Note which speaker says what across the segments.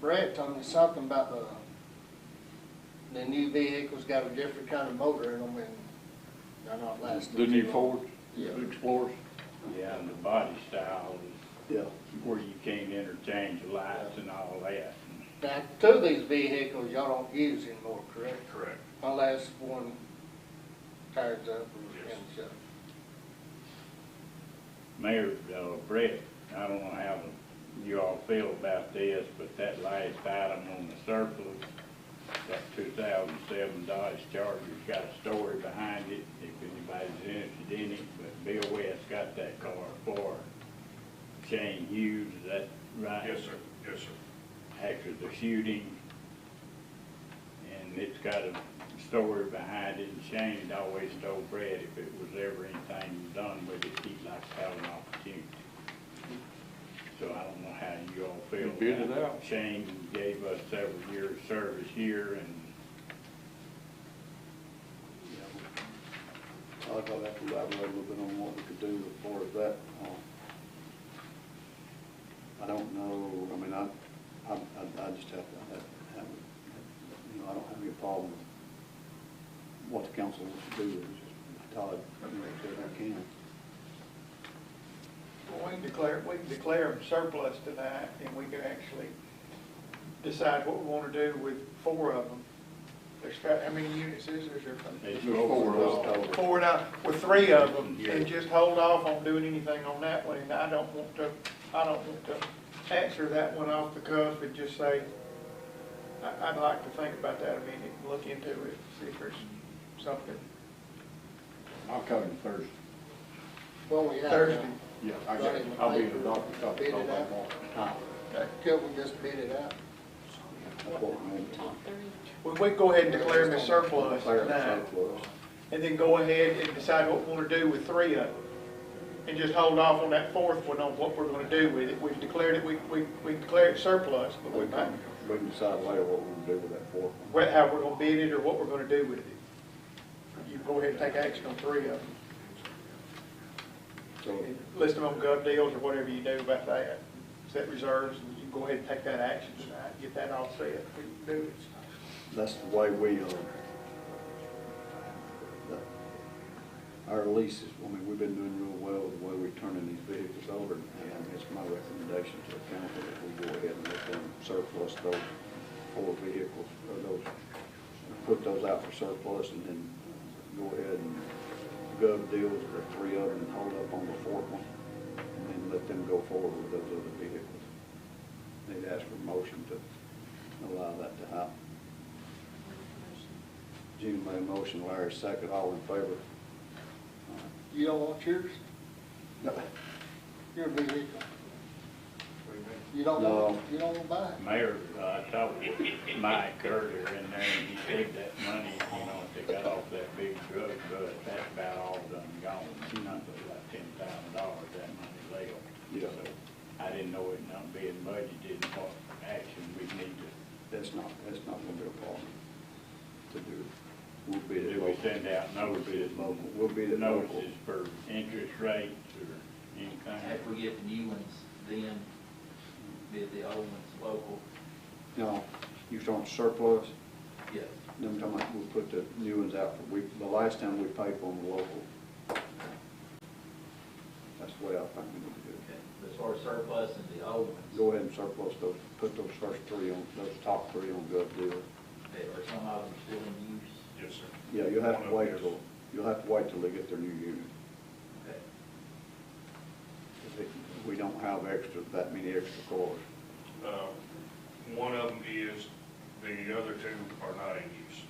Speaker 1: Brett told me something about the, the new vehicles got a different kind of motor in them and they're not lasting.
Speaker 2: The new
Speaker 1: too long.
Speaker 2: Ford
Speaker 1: Yeah.
Speaker 2: Explorers?
Speaker 3: Yeah, and the body style
Speaker 2: Yeah.
Speaker 3: is where you can't interchange lights and all that.
Speaker 1: Now, two of these vehicles y'all don't use anymore, correct?
Speaker 4: Correct.
Speaker 1: Unless one tires up or
Speaker 4: Yes.
Speaker 1: ends up.
Speaker 3: Mayor uh, Brett, I don't know how you all feel about this, but that last item on the surplus, that two thousand seven Dodge Charger's got a story behind it, if anybody's interested in it, but Bill West got that car for Shane Hughes, is that right?
Speaker 4: Yes, sir, yes, sir.
Speaker 3: after the shooting. And it's got a story behind it, and Shane had always told Brad if it was ever anything done with it, he'd like to have an opportunity. So I don't know how you all feel.
Speaker 2: You bid it
Speaker 3: about
Speaker 2: out.
Speaker 3: Shane gave us several years' service here, and, you know,
Speaker 5: I'll have to elaborate a little bit on what we could do as far as that. um, I don't know, I mean, I, I, I I just have to, I have, have, you know, I don't have any problem with what the council wants to do, it's just Todd, you know, said I can.
Speaker 6: Well, we can declare, we can declare them surplus tonight, and we can actually decide what we want to do with four of them. There's, got- how many units is there, sir?
Speaker 3: it's over. all.
Speaker 5: There's
Speaker 6: Four, now, with three of them,
Speaker 3: Yeah.
Speaker 6: and just hold off on doing anything on that one, and I don't want to, I don't want to answer that one off the cuff and just say, I, I'd like to think about that a minute, and look into it, see if there's something.
Speaker 2: I'll call him Thursday.
Speaker 1: Well, we have.
Speaker 6: Thursday.
Speaker 2: Yeah, I got, I'll be in the doctor's office all day long.
Speaker 1: Till we just bid it out.
Speaker 5: That's what we need.
Speaker 7: Top three.
Speaker 6: We, we go ahead and declare them as surplus
Speaker 5: Declare
Speaker 6: tonight.
Speaker 5: it surplus.
Speaker 6: and then go ahead and decide what we want to do with three of them. And just hold off on that fourth one on what we're going to do with it. We've declared it, we, we, we declared it surplus, but we
Speaker 5: We
Speaker 6: might,
Speaker 5: can, we can decide later what we're gonna do with that fourth one.
Speaker 6: what- how we're going to bid it or what we're going to do with it. You go ahead and take action on three of them.
Speaker 5: So,
Speaker 6: And List them on gov deals or whatever you do about that. Set reserves, and you can go ahead and take that action tonight, get that all set. We can do it.
Speaker 5: That's the way we, uh, that- our leases, I mean, we've been doing real well with the way we're turning these vehicles over. And it's my recommendation to the council that we go ahead and let them surplus those four vehicles, or those, put those out for surplus and then go ahead and gov deals with the three of them and hold up on the fourth one. And then let them go forward with those other vehicles. They'd ask for motion to allow that to happen. Gene made a motion, Larry second, all in favor?
Speaker 1: You don't want yours?
Speaker 5: No.
Speaker 1: Your vehicle.
Speaker 4: What do you mean?
Speaker 1: You don't want,
Speaker 5: No.
Speaker 1: you don't want to buy it?
Speaker 3: Mayor, uh, talked with Mike earlier in there, and he said that money, you know, if they got off that big drug bust, that's about all done gone, nothing like ten thousand dollars, that money left.
Speaker 5: Yeah.
Speaker 3: So I didn't know it not being budgeted, and what action we need
Speaker 5: That's not, that's not gonna be a problem to do. We'll
Speaker 3: to,
Speaker 5: bid it
Speaker 3: do we
Speaker 5: local.
Speaker 3: send out notices?
Speaker 5: Local. We'll be the local.
Speaker 3: Notices for interest rates or
Speaker 8: If
Speaker 3: anything?
Speaker 8: we get the new ones, then bid the old ones local,
Speaker 5: Now, you talking surplus,
Speaker 8: yeah.
Speaker 5: then I'm talking about we'll put the new ones out for, we, the last time we paid for them local. That's the way I think we need to do it.
Speaker 8: Okay. But As far as surplus and the old ones,
Speaker 5: Go ahead and surplus those, put those first three on, those top three on gov deal.
Speaker 8: they- or some of them are still in use.
Speaker 4: Yes, sir.
Speaker 5: Yeah, you'll have
Speaker 4: One
Speaker 5: to
Speaker 4: of
Speaker 5: wait
Speaker 4: theirs.
Speaker 5: till, you'll have to wait till they get their new unit.
Speaker 8: Okay.
Speaker 5: We don't have extra, that many extra cars.
Speaker 4: Uh, One of them is, the other two are not in use.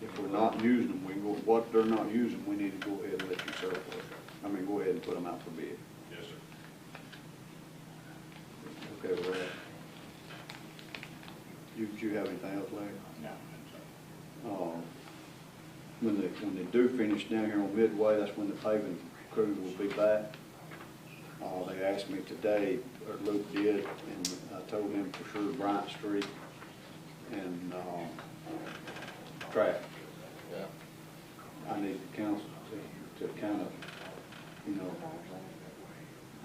Speaker 5: If we're not using them, we go, what they're not using, we need to go ahead and let you surplus. I mean, go ahead and put them out for bid.
Speaker 4: Yes, sir.
Speaker 5: Okay, with that. You, do you have anything else, Larry?
Speaker 3: No, that's all.
Speaker 5: Uh, When they, when they do finish down here on Midway, that's when the paving crew will be back. Uh, they asked me today, or Luke did, and I told him for sure Bryant Street and, um, Track. I need the council to, to kind of, you know,